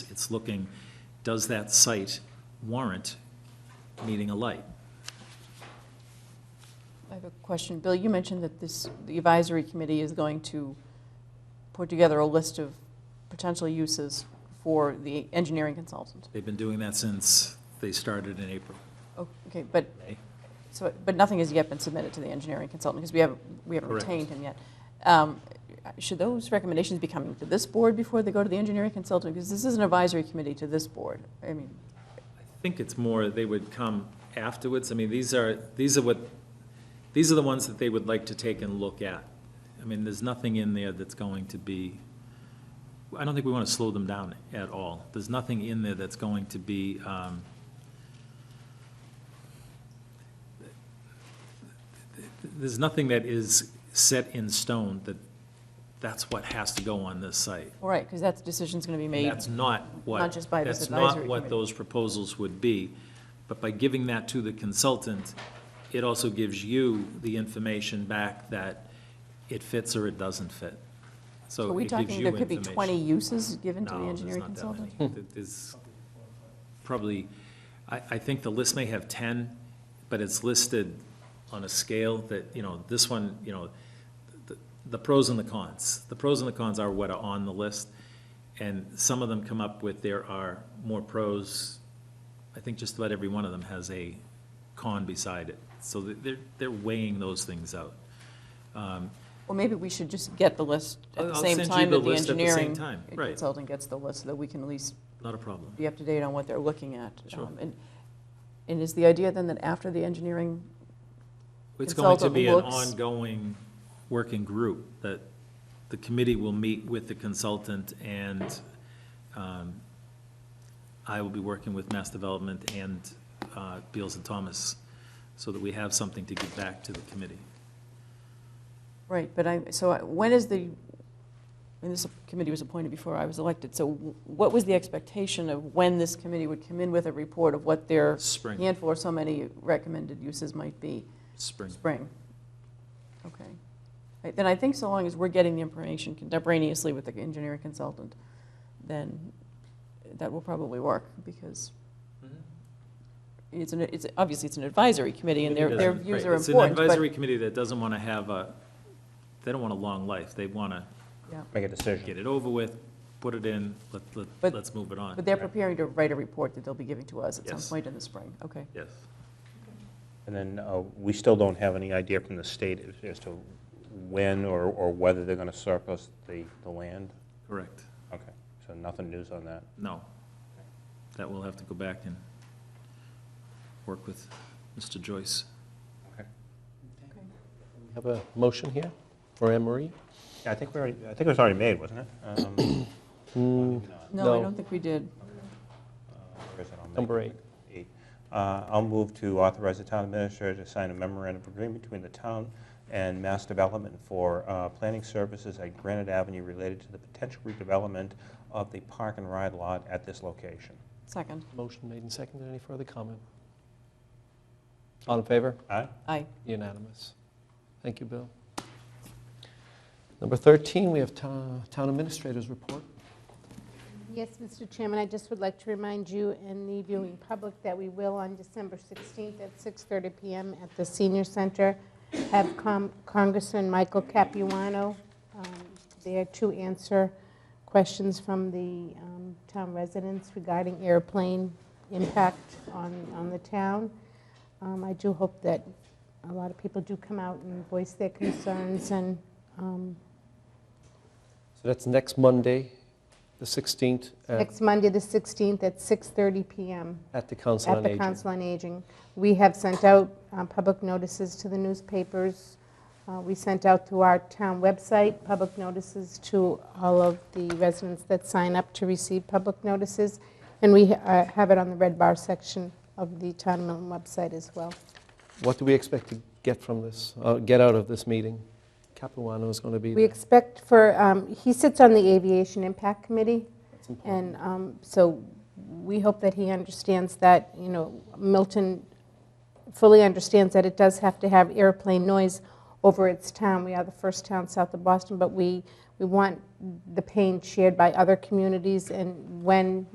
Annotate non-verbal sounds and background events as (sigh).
It's looking, does that site warrant needing a light? I have a question. Bill, you mentioned that this, the advisory committee is going to put together a list of potential uses for the engineering consultant. They've been doing that since they started in April, Oh, Okay, but, May. so, but nothing has yet been submitted to the engineering consultant, because we haven't, we haven't Correct. retained him yet. Um, Should those recommendations be coming to this board before they go to the engineering consultant? Because this is an advisory committee to this board. I mean, I think it's more they would come afterwards. I mean, these are, these are what, these are the ones that they would like to take and look at. I mean, there's nothing in there that's going to be, I don't think we want to slow them down at all. There's nothing in there that's going to be, um, there's nothing that is set in stone that that's what has to go on this site. all right, because that decision's going to be And made. That's not what. Not just by this That's not advisory what committee. those proposals would be. But by giving that to the consultant, it also gives you the information back that it fits or it doesn't fit. So Are it we gives talking, you there could be 20 information. uses given to the No, there's engineering not that many. consultant? Th- There's probably, I, I think the list may have 10, but it's listed on a scale that, you know, this one, you know, the- the pros and the cons. The pros and the cons are what are on the list, and some of them come up with there are more pros. I think just about every one of them has a con beside it. So th- they're, they're weighing those things out. Well, maybe we should just get the list at I'll- the I'll same send you time the that the list at the same engineering time, right. consultant gets the list, so that we can at least Not a problem. be up to date on what they're looking at. Sure. Um, And, and is the idea then that after the engineering, It's going to Consultant be an looks- ongoing working group that the committee will meet with the consultant and um, I will be working with Mass Development and uh, Beals and Thomas so that we have something to give back to the committee. right, but I, so I- when is the, and this committee was appointed before I was elected, so what was the expectation of when this committee would come in with a report of what their Spring, handful or so many recommended uses might be? spring. Spring. Okay. Right, Then I think so long as we're getting the information contemporaneously with the engineering consultant, then that will probably work, because it's an, it's, obviously, it's an advisory committee, and their, their Mm-hmm. Right. views are It's an important, but, advisory committee that doesn't want to have a, they don't want a long life. They want to Make a decision. get it over with, put it in, let, let- But- let's move it but on. they're preparing to write a report that they'll be giving to us at some Yes. point in the spring, okay? Yes. And then uh, we still don't have any idea from the state as- as to when or or whether they're going to surplus the the land? Correct. Okay, so nothing news on that. No. That we'll have to go back and work with Mr. Joyce. Have a motion here for Anne Marie? Yeah, I think we already, I think it was already made, wasn't it? (coughs) Um, Hmm, No, I No. don't think we did. uh, where is it? I'll make- Number eight. eight. Uh, I'll move to authorize the town administrator to sign a memorandum of agreement between the town and Mass Development for uh, planning services at Granite Avenue related to the potential redevelopment of the park and ride lot at this location. Second, Motion made and seconded. Any further comment? All in favor? Aye? aye. Unanimous. Thank you, Bill. Number 13, we have town town administrators report. Yes, Mr. Chairman, I just would like to remind you and the viewing public that we will, on December 16th at 6:30 PM at the Senior Center, have Com- Congressman Michael Capuano um, there to answer questions from the um, town residents regarding airplane impact on on the town. Um, I do hope that a lot of people do come out and voice their concerns and um, So that's next Monday, the 16th, at Next Monday, the 16th, at 6:30 PM at the Council at on the Aging. Council on Aging. We have sent out um, public notices to the newspapers. Uh, We sent out to our town website, public notices to all of the residents that sign up to receive public notices, and we uh, have it on the red bar section of the town of Milton website as well. What do we expect to get from this, uh, get out of this meeting? Capuano is going to be We there. expect for, um, he sits on the Aviation Impact Committee, That's important. And um, so we hope that he understands that, you know, Milton fully understands that it does have to have airplane noise over its town. We are the first town south of Boston, but we, we want the pain shared by other communities. And when